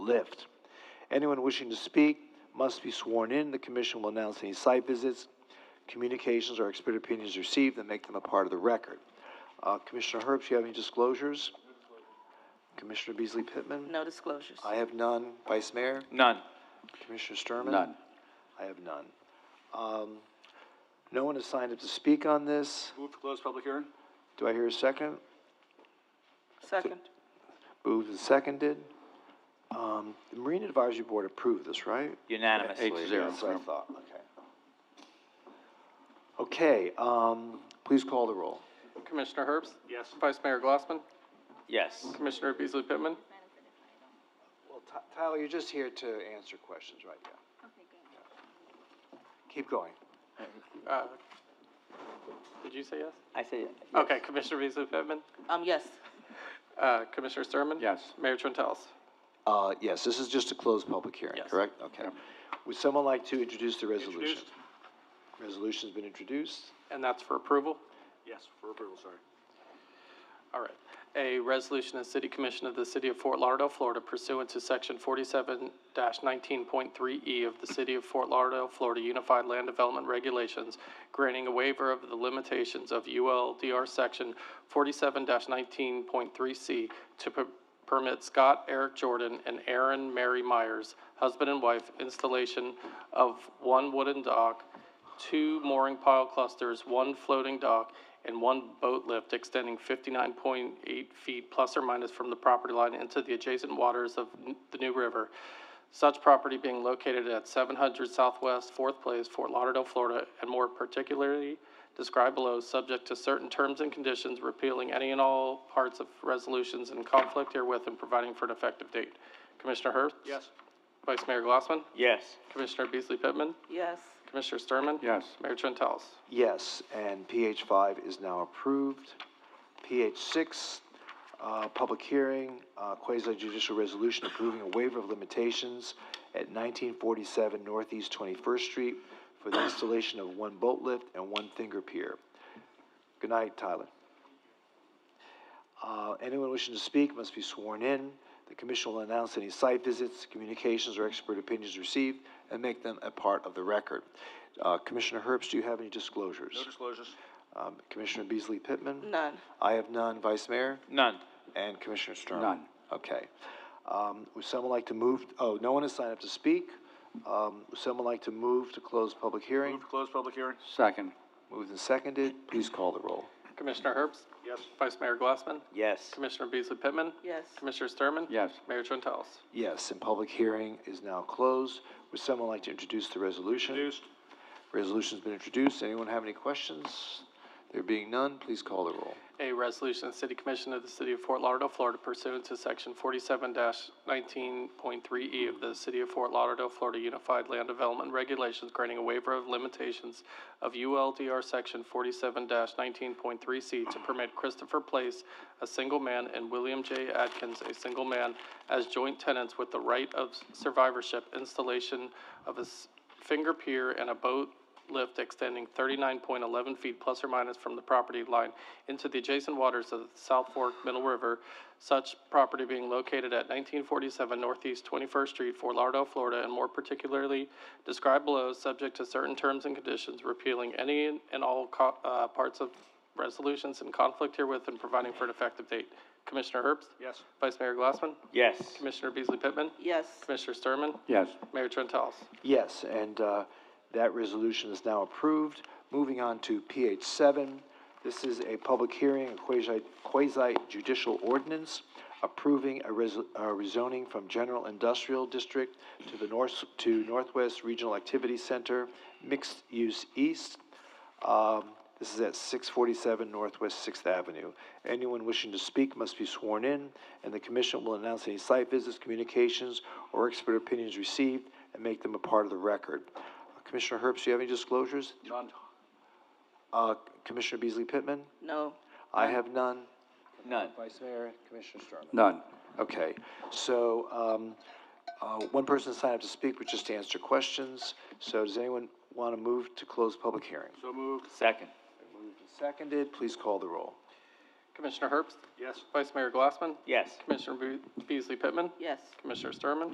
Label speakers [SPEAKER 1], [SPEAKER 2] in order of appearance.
[SPEAKER 1] lift. Anyone wishing to speak must be sworn in. The commission will announce any site visits, communications, or expert opinions received and make them a part of the record. Uh, Commissioner Herbst, you have any disclosures? Commissioner Beasley Pittman?
[SPEAKER 2] No disclosures.
[SPEAKER 1] I have none. Vice Mayor?
[SPEAKER 3] None.
[SPEAKER 1] Commissioner Sturman?
[SPEAKER 3] None.
[SPEAKER 1] I have none. Um, no one has signed up to speak on this.
[SPEAKER 3] Move to close public hearing?
[SPEAKER 1] Do I hear a second?
[SPEAKER 2] Second.
[SPEAKER 1] Moved and seconded. Um, the Marine Advisory Board approved this, right?
[SPEAKER 3] Unanimously.
[SPEAKER 1] Eight to zero. That's what I thought, okay. Okay, um, please call the roll.
[SPEAKER 4] Commissioner Herbst? Yes. Vice Mayor Glassman?
[SPEAKER 3] Yes.
[SPEAKER 4] Commissioner Beasley Pittman?
[SPEAKER 1] Well, Ty- Tyler, you're just here to answer questions, right? Yeah. Keep going.
[SPEAKER 4] Uh, Did you say yes?
[SPEAKER 3] I say.
[SPEAKER 4] Okay, Commissioner Beasley Pittman?
[SPEAKER 2] Um, yes.
[SPEAKER 4] Uh, Commissioner Sturman?
[SPEAKER 3] Yes.
[SPEAKER 4] Mayor Trentalis?
[SPEAKER 1] Uh, yes, this is just to close public hearing,
[SPEAKER 4] Yes.
[SPEAKER 1] correct? Okay. Would someone like to introduce the resolution? Resolution's been introduced.
[SPEAKER 4] And that's for approval?
[SPEAKER 3] Yes, for approval, sorry.
[SPEAKER 4] All right. A resolution of the City Commission of the City of Fort Lauderdale, Florida pursuant to Section forty-seven nineteen point three E of the City of Fort Lauderdale, Florida Unified Land Development Regulations, granting a waiver of the limitations of ULDR Section forty-seven nineteen point three C to per- permit Scott Eric Jordan and Aaron Mary Myers, husband and wife, installation of one wooden dock, two mooring pile clusters, one floating dock, and one boat lift extending fifty-nine point eight feet plus or minus from the property line into the adjacent waters of n- the New River. Such property being located at seven hundred Southwest Fourth Place, Fort Lauderdale, Florida, and more particularly described below, subject to certain terms and conditions, repealing any and all parts of resolutions in conflict herewith and providing for an effective date. Commissioner Herbst?
[SPEAKER 3] Yes.
[SPEAKER 4] Vice Mayor Glassman?
[SPEAKER 3] Yes.
[SPEAKER 4] Commissioner Beasley Pittman?
[SPEAKER 2] Yes.
[SPEAKER 4] Commissioner Sturman?
[SPEAKER 3] Yes.
[SPEAKER 4] Mayor Trentalis?
[SPEAKER 1] Yes, and PH five is now approved. PH six, uh, public hearing, uh, quasi judicial resolution approving a waiver of limitations at nineteen forty-seven Northeast Twenty-first Street for the installation of one boat lift and one finger pier. Good night, Tyler. Uh, anyone wishing to speak must be sworn in. The commission will announce any site visits, communications, or expert opinions received and make them a part of the record. Uh, Commissioner Herbst, do you have any disclosures?
[SPEAKER 3] No disclosures?
[SPEAKER 1] Um, Commissioner Beasley Pittman?
[SPEAKER 2] None.
[SPEAKER 1] I have none. Vice Mayor?
[SPEAKER 3] None.
[SPEAKER 1] And Commissioner Sturman?
[SPEAKER 3] None.
[SPEAKER 1] Okay. Um, would someone like to move, oh, no one has signed up to speak. Um, would someone like to move to close public hearing?
[SPEAKER 3] to close public hearing? Second.
[SPEAKER 1] Moved and seconded. Please call the roll.
[SPEAKER 4] Commissioner Herbst?
[SPEAKER 3] Yes.
[SPEAKER 4] Vice Mayor Glassman?
[SPEAKER 3] Yes.
[SPEAKER 4] Commissioner Beasley Pittman?
[SPEAKER 2] Yes.
[SPEAKER 4] Commissioner Sturman?
[SPEAKER 3] Yes.
[SPEAKER 4] Mayor Trentalis?
[SPEAKER 1] Yes, and public hearing is now closed. Would someone like to introduce the resolution? Resolution's been introduced. Anyone have any questions? There being none, please call the roll.
[SPEAKER 4] A resolution of the City Commission of the City of Fort Lauderdale, Florida pursuant to Section forty-seven nineteen point three E of the City of Fort Lauderdale, Florida Unified Land Development Regulations granting a waiver of limitations of ULDR Section forty-seven nineteen point three C to permit Christopher Place, a single man, and William J. Adkins, a single man, as joint tenants with the right of survivorship installation of a s- finger pier and a boat lift extending thirty-nine point eleven feet plus or minus from the property line into the adjacent waters of the South Fork Middle River, such property being located at nineteen forty-seven Northeast Twenty-first Street, Fort Lauderdale, Florida, and more particularly described below, subject to certain terms and conditions, repealing any and all co- uh, parts of resolutions in conflict herewith and providing for an effective date. Commissioner Herbst?
[SPEAKER 3] Yes.
[SPEAKER 4] Vice Mayor Glassman?
[SPEAKER 3] Yes.
[SPEAKER 4] Commissioner Beasley Pittman?
[SPEAKER 2] Yes.
[SPEAKER 4] Commissioner Sturman?
[SPEAKER 3] Yes.
[SPEAKER 4] Mayor Trentalis?
[SPEAKER 1] Yes, and uh, that resolution is now approved. Moving on to PH seven. This is a public hearing, a quasi judicial ordinance approving a res- a rezoning from General Industrial District to the north, to Northwest Regional Activity Center, Mixed Use East. Um, This is at six forty-seven Northwest Sixth Avenue. Anyone wishing to speak must be sworn in, and the commission will announce any site visits, communications, or expert opinions received and make them a part of the record. Uh, Commissioner Herbst, do you have any disclosures?
[SPEAKER 3] None.
[SPEAKER 1] Uh, Commissioner Beasley Pittman?
[SPEAKER 2] No.
[SPEAKER 1] I have none.
[SPEAKER 3] None.
[SPEAKER 1] Vice Mayor, Commissioner Sturman?
[SPEAKER 3] None.
[SPEAKER 1] Okay, so, um, uh, one person signed up to speak, which is to answer questions. So does anyone want to move to close public hearing?
[SPEAKER 3] So moved. Second.
[SPEAKER 1] Moved and seconded, please call the roll.
[SPEAKER 4] Commissioner Herbst?
[SPEAKER 3] Yes.
[SPEAKER 4] Vice Mayor Glassman?
[SPEAKER 3] Yes.
[SPEAKER 4] Commissioner Be- Beasley Pittman?
[SPEAKER 2] Yes.
[SPEAKER 4] Commissioner Sturman?